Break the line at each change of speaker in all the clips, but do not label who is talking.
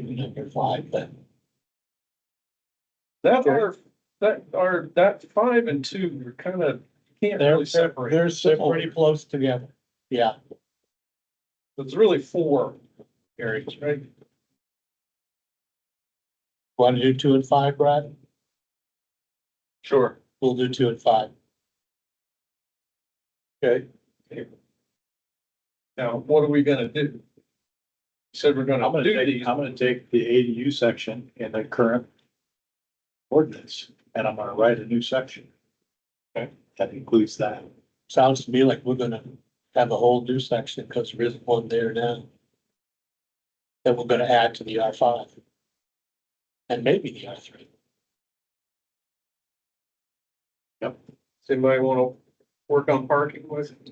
Number five, then.
That
Okay.
are, that are, that five and two are kind of, can't
They're,
really
they're,
separate.
they're so pretty close together. Yeah,
It's really four areas, right?
wanna do two and five, Brad?
Sure.
We'll do two and five.
Okay. Now, what are we gonna do? You Said we're
I'm
gonna
gonna
do
take,
these.
I'm gonna take the ADU section in the current ordinance, and I'm gonna write a new section.
Okay.
That includes that.
Sounds to me like we're gonna have a whole new section, cause there isn't one there now. That we're gonna add to the R five. And maybe the R three.
Does anybody wanna work on parking with? it?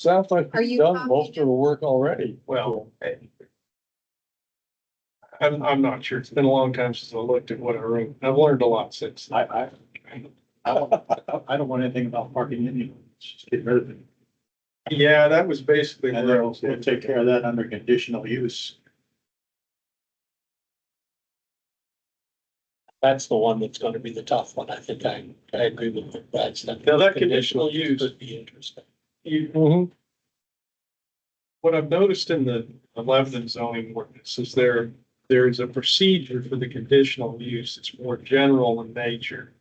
Sounds like
Are you done most of the
work already.
Well, I'm, I'm not sure. It's been a long time since I looked at what I wrote. I've learned a lot since.
I, I, I don't, I don't want anything about parking in you, just get rid of it.
Yeah, that was basically
And
where
then
I
we'll
was
we'll take care of that under conditional use.
That's the one that's gonna be the tough one, I think I, I agree with you, that's.
Now, that conditional use-
Would be interesting.
You,
Mm-hmm.
what I've noticed in the Lebanon zoning ordinance is there, there is a procedure for the conditional use. It's more general in nature.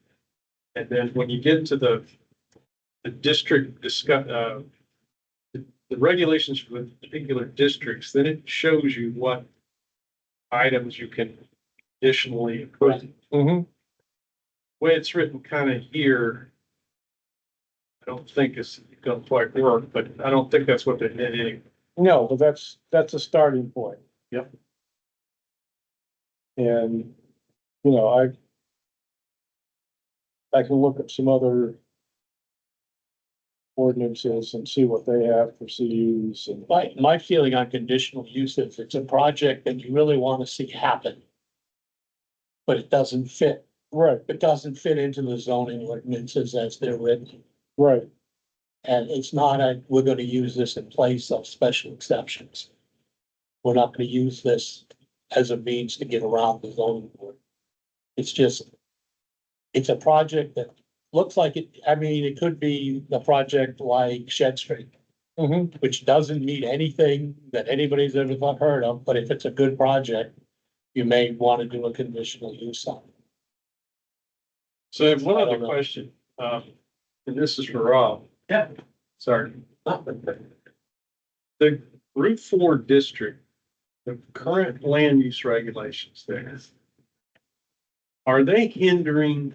And then when you get to the, the district discuss, uh, the the regulations for the particular districts, then it shows you what items you can additionally approve.
Mm-hmm.
Way it's written kind of here, I don't think it's gonna quite work, but I don't think that's what they did anyway.
No, but that's, that's a starting point.
Yep.
And, you know, I. I can look at some other. Ordinances and see what they have for CUs and. My, my feeling on conditional use is it's a project that you really wanna see happen. But it doesn't fit. Right. It doesn't fit into the zoning ordinances as they're written. Right. And it's not a, we're gonna use this in place of special exceptions. We're not gonna use this as a means to get around the zoning board. It's just, it's a project that looks like it, I mean, it could be the project like Shed Street.
Mm-hmm.
Which doesn't mean anything that anybody's ever thought- heard of, but if it's a good project, you may wanna do a conditional use on it.
So I have one
I don't
other
know.
question, um, and this is for Rob.
Yeah.
Sorry. The Route Four district, the current land use regulations there. Are they hindering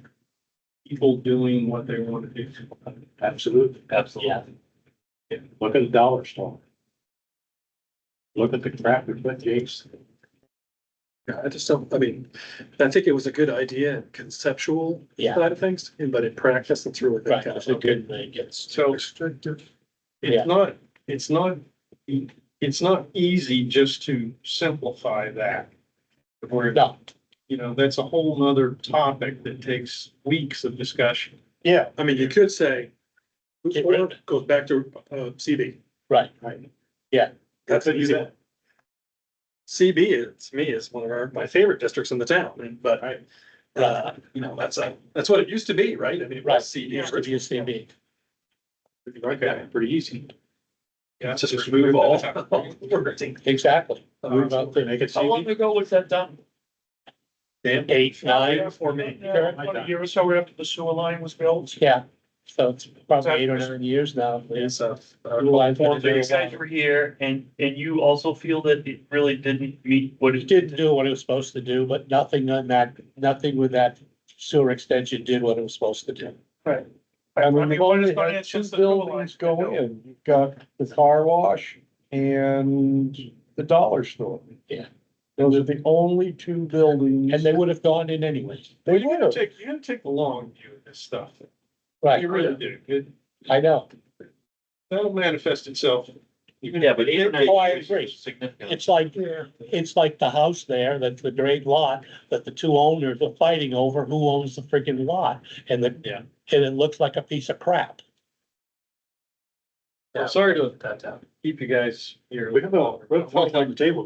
people doing what they want to do?
Absolutely.
Yeah.
Look at the dollar store. Look at the crap we put Jake's.
Yeah, I just don't, I mean, I think it was a good idea and conceptual
Yeah,
side of things, but in practice, it's really. been
right,
kind of
it's a good thing, it's,
So
Restrictive.
Yeah.
it's not, it's not, it's not easy just to simplify that. Where,
no,
you know, that's a whole nother topic that takes weeks of discussion.
Yeah.
I mean, you could say,
Get rid of
or goes back to uh CB.
right,
Right.
Yeah.
That's an
That's
easy
what
one. CB, is- to me, is one of our, my favorite districts in the town, and but I, uh, you know, that's a, that's what it used to be, right? I mean, it
Right.
was CB.
used to be a CB.
Like that, pretty easy.
Yeah,
Just remove all.
Exactly. Move out there.
Make it CB.
ago was that done?
Eight, nine,
For me.
Yeah,
about a
year or so after the sewer line was built.
yeah, so it's probably eight or nine years now.
It's a, uh,
Utilized it
So
very
you guys
well.
were here and, and you also feel that it really didn't meet what
It
it
didn't do what it was supposed to do, but nothing on that, nothing with that sewer extension did what it was supposed to do.
I mean,
I mean,
you've
what is
only
gonna
had two
assist the sewer
buildings
line?
go in. You've got the car wash and the dollar store.
Yeah.
Those are the only two buildings.
And they would have gone in anyway.
They
You gotta
would.
take, you gotta take the long view of this stuff.
Right,
You really do. It-
I know.
That'll manifest itself. even
Yeah,
if
but
it-
internet
Oh, I
use is
agree.
significant.
It's like, it's like the house there, that's the great lot, that the two owners are fighting over who owns the freaking lot. And the,
Yeah.
and it looks like a piece of crap.
I'm sorry to
downtown.
keep you guys here.
We have a, we have a full time table